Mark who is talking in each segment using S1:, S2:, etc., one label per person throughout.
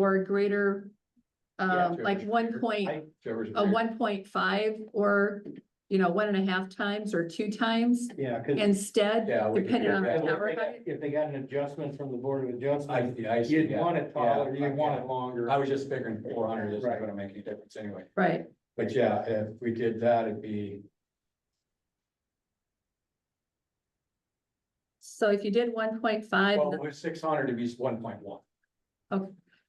S1: or greater,
S2: Yeah,
S1: um,
S2: sure.
S1: like one point,
S2: I- Trevor's
S1: a
S2: agree.
S1: one point five or, you know, one and a half times or two times
S3: Yeah, cause.
S1: instead,
S2: Yeah, we could
S1: depending
S2: do
S1: on the
S2: that.
S1: tower
S3: If
S1: height.
S3: they- if they got an adjustment from the board of
S2: I,
S3: adjustment,
S2: yeah, I see,
S3: you'd
S2: yeah.
S3: want it taller,
S2: Yeah,
S3: you'd want it longer.
S2: I was just figuring four hundred isn't
S3: Right.
S2: gonna make any difference anyway,
S1: Right,
S2: but yeah, if we did that, it'd be,
S1: so if you did one point five,
S2: well, with six hundred, it'd be one point one,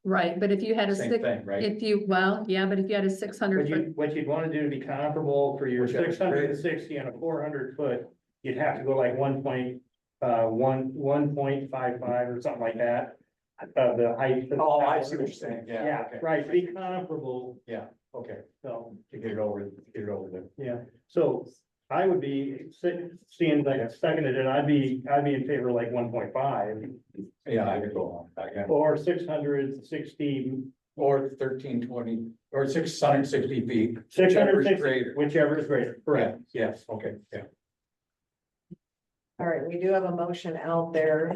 S1: right, but if you had a
S2: same
S1: six,
S2: thing, right?
S1: if you, well, yeah, but if you had a six
S3: What
S1: hundred foot,
S3: you, what you'd wanna do to be comparable for your
S2: Which I-
S3: six hundred and sixty and a four hundred foot, you'd have to go like one point, uh, one, one point five five or something like that. Of the height. of the
S2: Oh, I
S3: tower.
S2: see what you're saying, yeah,
S3: Yeah,
S2: okay.
S3: right, be comparable,
S2: Okay,
S3: so,
S2: to get it over, to get it over there.
S3: yeah, so I would be, se- seeing like I seconded it, I'd be, I'd be in favor of like one point five.
S2: Yeah, I could go on, yeah,
S3: Or six hundred sixty,
S2: or thirteen twenty, or six hundred sixty feet.
S3: six hundred
S2: Whichever's
S3: sixty,
S2: greater.
S3: whichever is greater, correct.
S2: Correct, yes, okay, yeah.
S4: All right, we do have a motion out there.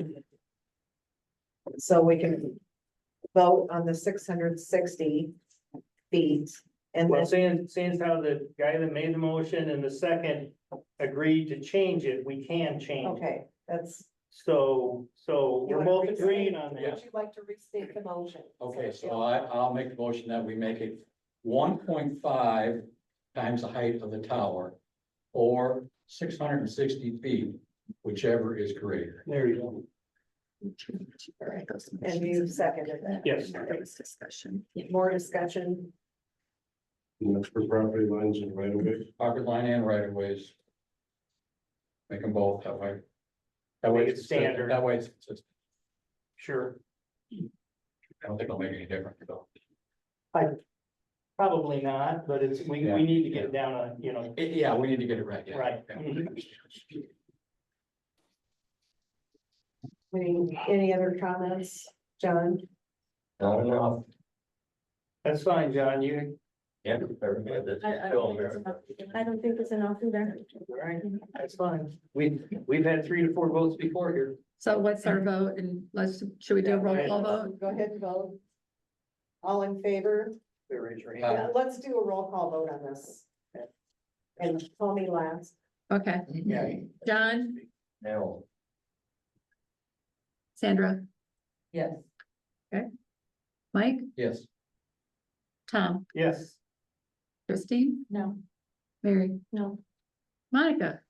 S4: So we can vote on the six hundred sixty feet and
S3: Well,
S4: then,
S3: seeing, seeing how the guy that made the motion and the second agreed to change it, we can change. it.
S4: okay, that's.
S3: So, so
S4: You
S3: we're
S4: wanna
S3: both
S4: restate-
S3: agreeing on
S2: Yeah.
S3: that.
S4: Would you like to restate the motion?
S2: Okay, so I, I'll make the motion that we make it one point five times the height of the tower. Or six hundred and sixty feet, whichever is greater.
S3: There you go.
S4: And you seconded that.
S3: Yes.
S1: That was discussion.
S4: More discussion,
S5: And that's for property lines and right of way.
S2: Property line and right of ways. Make them both that way. That way
S3: Make it
S2: it's standard,
S3: standard.
S2: that way it's, it's-
S3: Sure,
S2: I don't think it'll make any difference though.
S3: probably not, but it's, we,
S2: Yeah.
S3: we need to get it down on, you know,
S2: Eh, Yeah, we need to get it right, yeah.
S3: right. Mm-hmm.
S2: Yeah.
S4: any, any other comments, John?
S2: Not enough.
S3: That's fine, John, you,
S2: Yeah.
S6: I don't think it's enough either.
S3: right, that's fine. We, we've had three to four votes before here.
S1: So what's our vote and let's, should we do a roll call vote?
S4: Go ahead and vote. All in favor?
S3: Raise your
S2: Uh,
S3: hand.
S4: Yeah, let's do a roll call vote on this. And call me last.
S1: Okay,
S2: Yeah.
S1: John,
S2: No.
S1: Sandra,
S4: Yes.
S1: Mike,
S2: Yes.
S1: Tom,
S3: Yes.
S1: Christine,
S6: No,
S1: Mary,
S6: no.
S1: Monica.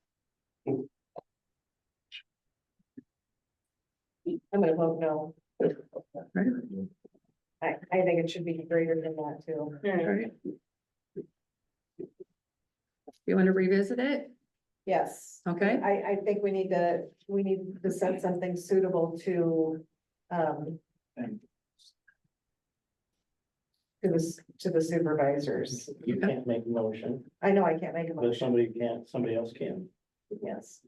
S4: I'm gonna vote no.
S1: Right.
S4: I, I think it should be greater than that too.
S1: Right. You want to revisit it?
S4: Yes.
S1: Okay.
S4: I, I think we need to, we need to set something suitable to, um, to the, s- to the supervisors.
S3: You can't make a motion,
S4: I know I can't make a
S3: but
S4: motion,
S3: somebody can, somebody else can.
S4: yes.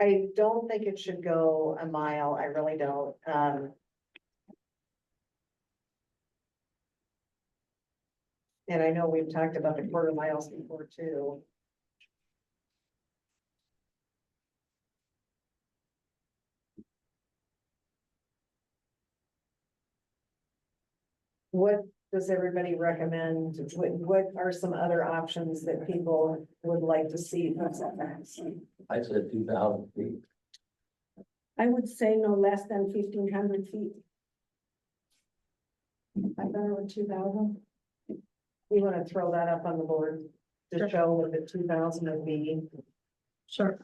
S4: I don't think it should go a mile, I really don't, um. And I know we've talked about the quarter miles before too. What does everybody recommend? What, what are some other options that people would like to see? from setbacks?
S2: I said two thousand feet.
S6: I would say no less than fifteen hundred feet. I thought it was two thousand.
S4: We want to throw that up on the board to show what the two thousand would be.
S1: Sure.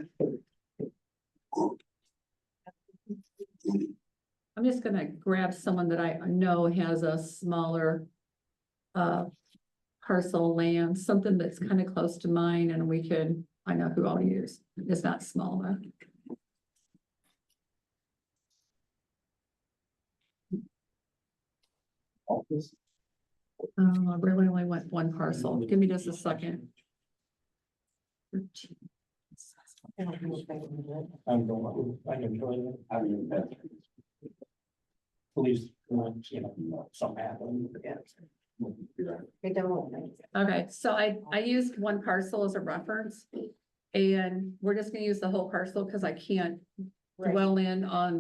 S1: I'm just gonna grab someone that I know has a smaller uh parcel land, something that's kind of close to mine and we could, I know who I'll use. It's not small though. Um, Oh, I really only want one parcel. Give me just a second.
S4: I don't know if I can do it.
S3: I'm going, I can join you. I mean, that's. Please, you know, something happened.
S4: I don't think.
S1: Okay, so I, I used one parcel as a reference. And we're just gonna use the whole parcel because I can't
S4: Right.
S1: dwell in on